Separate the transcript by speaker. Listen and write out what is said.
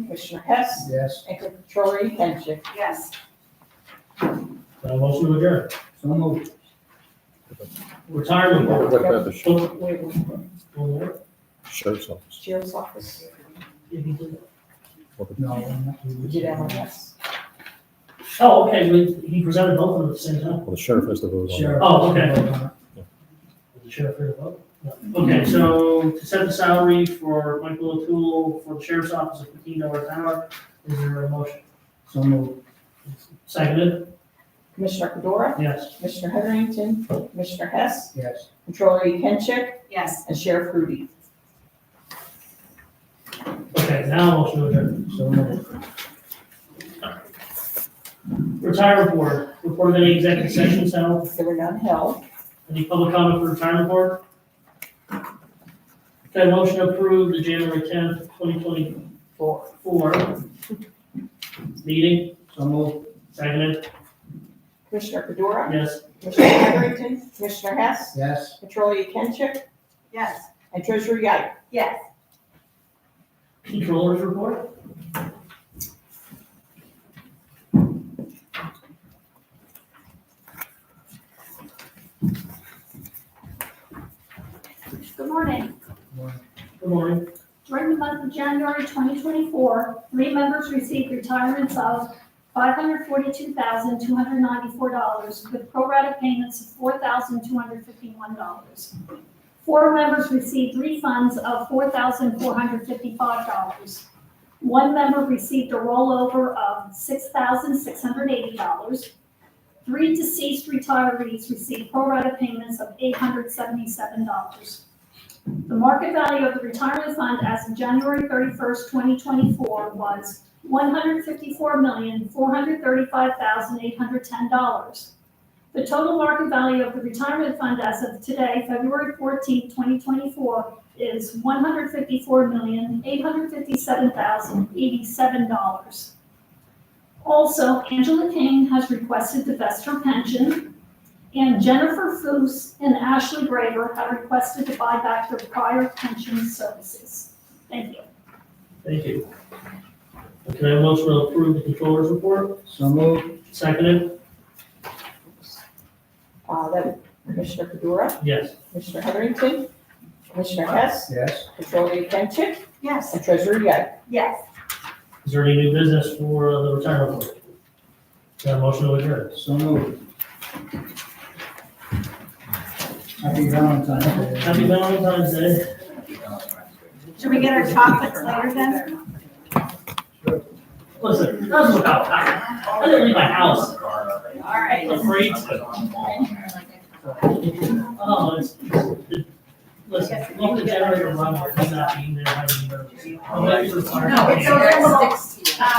Speaker 1: Commissioner Hess,
Speaker 2: Yes.
Speaker 1: and Controller Yenicott.
Speaker 3: Yes.
Speaker 4: Now motion to adjourn.
Speaker 2: So moved.
Speaker 4: Retirement board.
Speaker 5: What about the sh-
Speaker 1: Wait, wait, wait.
Speaker 5: sheriff's office?
Speaker 1: Sheriff's Office.
Speaker 5: What about-
Speaker 2: No. no.
Speaker 1: We did that one, yes.
Speaker 4: Oh, okay, we- he presented both of them at the same time.
Speaker 5: Well, the sheriff has to vote on it.
Speaker 2: Sheriff.
Speaker 4: Oh, okay. Was the sheriff here to vote? No. Okay, so to set the salary for Michael O'Toole for the sheriff's office at fifteen dollars an hour, is there a motion?
Speaker 2: So moved.
Speaker 4: Seconded,
Speaker 1: Commissioner Fedora,
Speaker 4: yes.
Speaker 1: Commissioner Heatherington, Commissioner Hess,
Speaker 2: Yes.
Speaker 1: Controller Yenicott,
Speaker 3: Yes.
Speaker 1: and Sheriff Rudy.
Speaker 4: Okay, now motion to adjourn.
Speaker 2: So moved.
Speaker 4: Retirement board, report of any executive sessions held,
Speaker 1: There were none held.
Speaker 4: any public comment for retirement board? Okay, motion to approve the January tenth, twenty twenty-four, meeting,
Speaker 2: So moved.
Speaker 4: seconded,
Speaker 1: Commissioner Fedora,
Speaker 4: yes.
Speaker 1: Commissioner Heatherington, Commissioner Hess,
Speaker 2: Yes.
Speaker 1: Controller Yenicott,
Speaker 3: Yes.
Speaker 1: and Treasurer Yap.
Speaker 3: Yes.
Speaker 4: Controllers report?
Speaker 6: Good morning.
Speaker 4: Good morning.
Speaker 6: During the month of January 2024, three members received retirements of $542,294 with pro-rata payments of $4,251. Four members received refunds of $4,455. One member received a rollover of $6,680. Three deceased retirees received pro-rata payments of $877. The market value of the retirement fund as of January thirty-first, twenty twenty-four was one hundred fifty-four million, four hundred thirty-five thousand, eight hundred ten dollars. The total market value of the retirement fund as of today, February fourteenth, twenty twenty-four, is one hundred fifty-four million, eight hundred fifty-seven thousand, eighty-seven dollars. Also, Angela King has requested to vest her pension. And Jennifer Foos and Ashley Graver have requested to buy back their prior pension services. Thank you.
Speaker 4: Thank you. Can I have a motion to approve the controllers report?
Speaker 2: So moved.
Speaker 4: Seconded,
Speaker 1: Uh, that Commissioner Fedora,
Speaker 4: yes.
Speaker 1: Commissioner Heatherington, Commissioner Hess,
Speaker 2: Yes.
Speaker 1: Controller Yenicott,
Speaker 3: Yes.
Speaker 1: and Treasurer Yap.
Speaker 3: Yes.
Speaker 4: Is there any new business for uh, the retirement board? Can I have a motion to adjourn?
Speaker 2: So moved. Happy Valentine's Day.
Speaker 4: Happy Valentine's Day.
Speaker 3: Should we get our chocolates later then?
Speaker 4: Listen, that's what I, I didn't leave my house.
Speaker 3: All
Speaker 4: I'm
Speaker 3: right.
Speaker 4: afraid to. Oh, it's, it- listen, leave the generator running, it's not being there, having emergency.
Speaker 3: No, it's a little, uh,